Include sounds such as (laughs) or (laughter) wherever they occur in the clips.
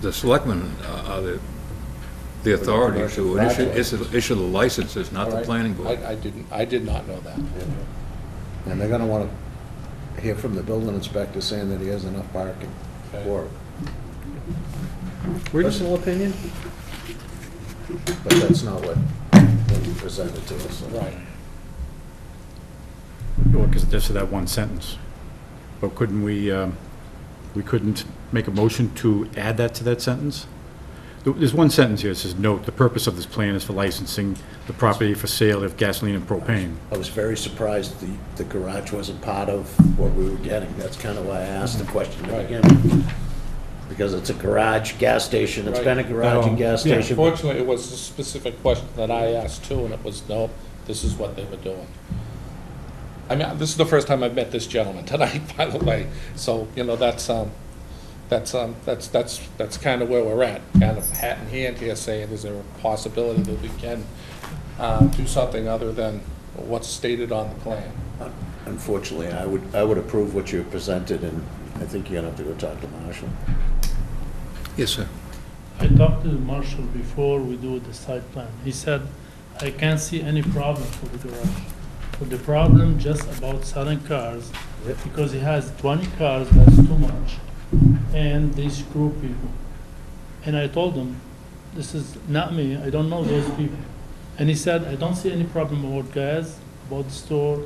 the selectmen uh, are the, the authority to issue, issue- issue the licenses, not the planning board. I, I didn't, I did not know that. And they're gonna wanna hear from the building inspector saying that he has enough parking for it. Personal opinion? But that's not what what you presented to us. Right. Well, because just that one sentence. But couldn't we, um, we couldn't make a motion to add that to that sentence? There- There's one sentence here that says, "Note, the purpose of this plan is for licensing the property for sale of gasoline and propane." I was very surprised the, the garage wasn't part of what we were getting. That's kinda why I asked the question to Mm-hmm. Right. begin with. Because it's a garage, gas station, it's been a Right. Oh, garage and gas Yeah. station. Fortunately, it was a specific question that I asked too, and it was, no, this is what they were doing. I mean, this is the first time I've met this gentleman tonight, (laughs) by the way, so, you know, that's, um, that's, um, that's, that's, that's kind of where we're at, kind of hat in hand here, saying, is there a possibility that we can, uh, do something other than what's stated on the plan? Unfortunately, I would, I would approve what you presented, and I think you're gonna have to go talk to Marshall. Yes, sir. I talked to Marshall before we do the site plan. He said, I can't see any problem for the garage. But the problem just about selling cars, Yep. because he has twenty cars, that's too much. And they screw people. And I told him, this is not me, I don't know those people. And he said, I don't see any problem about gas, about the store,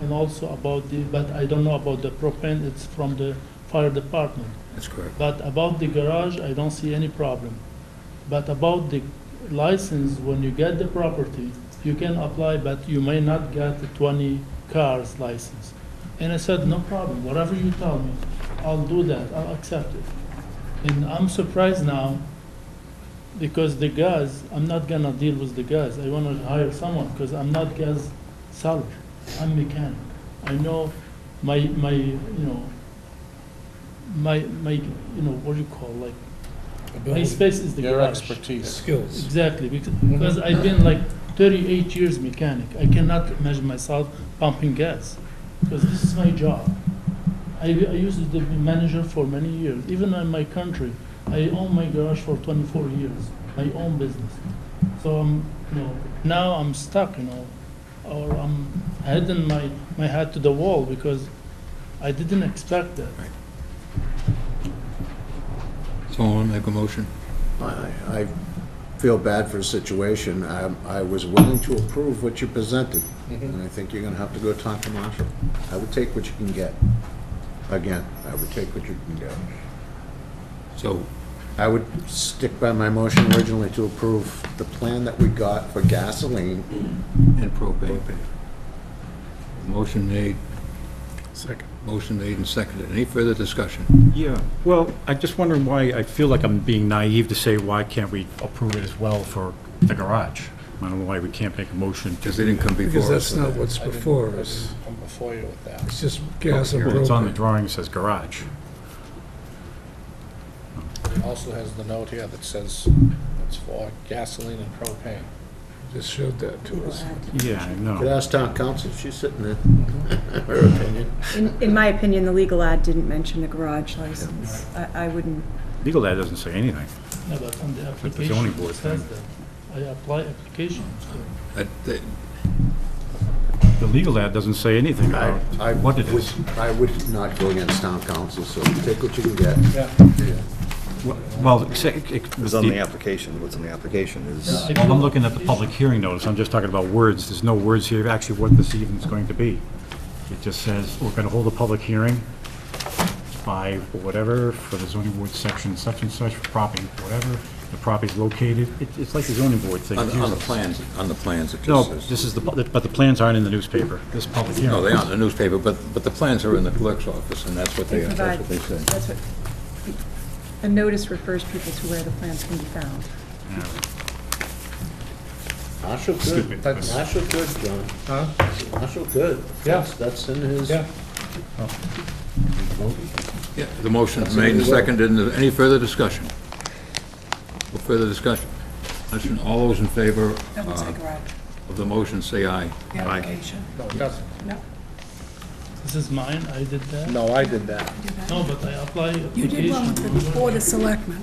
and also about the, but I don't know about the propane, it's from the fire department. That's correct. But about the garage, I don't see any problem. But about the license, when you get the property, you can apply, but you may not get the twenty cars license. And I said, no problem, whatever you tell me, I'll do that, I'll accept it. And I'm surprised now, because the guys, I'm not gonna deal with the guys, I wanna hire someone, because I'm not gas seller, I'm mechanic. I know my, my, you know, my, my, you know, what do you call, like, my space is the Your garage. expertise. Exactly, bec- because I've been like thirty-eight years mechanic, I cannot imagine myself pumping gas, because this is my job. I, I used to be manager for many years, even in my country, I own my garage for twenty-four years, my own business. So I'm, you know, now I'm stuck, you know, or I'm heading my, my head to the wall, because I didn't expect that. Someone want to make a motion? I, I feel bad for the situation. I, I was willing to approve what you presented, Mm-hmm. and I think you're gonna have to go talk to Marshall. I would take what you can get. Again, I would take what you can get. So, I would stick by my motion originally to approve the plan that we got for gasoline. and propane. Motion made. Second. Motion made and seconded. Any further discussion? Yeah, well, I'm just wondering why, I feel like I'm being naive to say, why can't we approve it as well for the garage? I don't know why we can't make a motion to... Because they didn't come Because before that's us. not what's I didn't- before I us. didn't Come before you with that. It's just gas and It's on the propane. drawing, it says garage. Also has the note here that says it's for gasoline and propane. Just showed that to us. Yeah, I Could know. ask town council, she's sitting there, (laughs) her opinion. In, in my opinion, the legal ad didn't mention a garage license. I, I wouldn't, Legal ad doesn't say anything. No, but on the But the zoning application, board it says thing. that, I apply application, so. That- that- The legal ad doesn't say anything I, about I what it would- is. I would not go against town council, so take what you can get. Well, except- It was on the application, what's on the application is, Yeah. I'm looking at the public hearing notice, I'm just talking about words, there's no words here, actually what this evening's going to be. It just says, we're gonna hold a public hearing by whatever, for the zoning board section, such and such, for property, whatever, the property's located, It- it's like the zoning board thing. On, on the plans, on the plans, it No, just says. this is the, pu- but the plans aren't in the newspaper, this public hearing. No, they aren't in the newspaper, but, but the plans are in the clerk's office, and that's what they they, are. that's provide, what they say. that's what, the notice refers people to where the plans can be found. Yeah. Marshall Stupid. good, Marshall good, John. Huh? Marshall good. Yeah. That's- That's in his. Yeah. Yeah, the motion is made and seconded. And Any further discussion? No further discussion? Listen, all those in favor That would say uh, garage, of the motion, say aye. the application. No, it doesn't. No, This is mine, I did that. No, I did that. No, but I apply application. You did one with the Board of Selectmen.